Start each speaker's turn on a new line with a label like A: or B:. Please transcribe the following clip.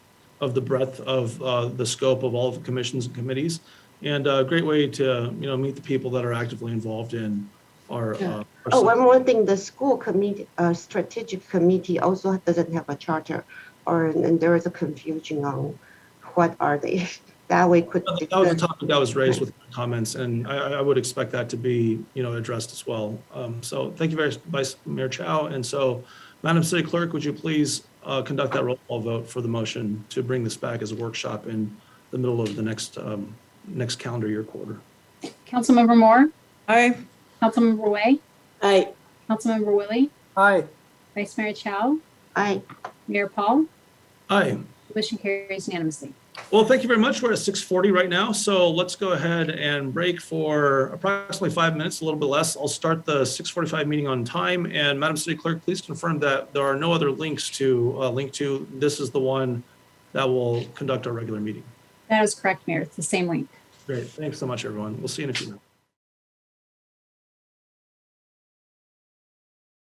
A: of the breadth of uh, the scope of all of the commissions and committees. And a great way to, you know, meet the people that are actively involved in our. uh, our
B: Oh, one more thing, the school committee, uh, strategic committee also doesn't have a charter, or, and there is a confusion on what are they, that we could.
A: That was a
B: discuss.
A: topic that was raised with comments, and I, I- I would expect that to be, you know, addressed as well. Um, So thank you, very Vice Mayor Chow. And so, Madam City Clerk, would you please uh, conduct that roll call vote for the motion to bring this back as a workshop in the middle of the next, um, next calendar year quarter?
C: Councilmember Moore,
D: Aye.
C: Councilmember Way,
D: Aye.
C: Councilmember Willie,
E: aye,
C: Vice Mayor Chow,
B: I,
C: Mayor Paul,
A: Aye.
C: motion carries unanimously.
A: Well, thank you very much. We're at 6:40 right now, so let's go ahead and break for approximately five minutes, a little bit less. I'll start the 6:45 meeting on time. And Madam City Clerk, please confirm that there are no other links to uh, link to. This is the one that will conduct our regular meeting.
C: That is correct, Mayor. It's the same link.
A: Great. Thanks so much, everyone. We'll see you in a few minutes.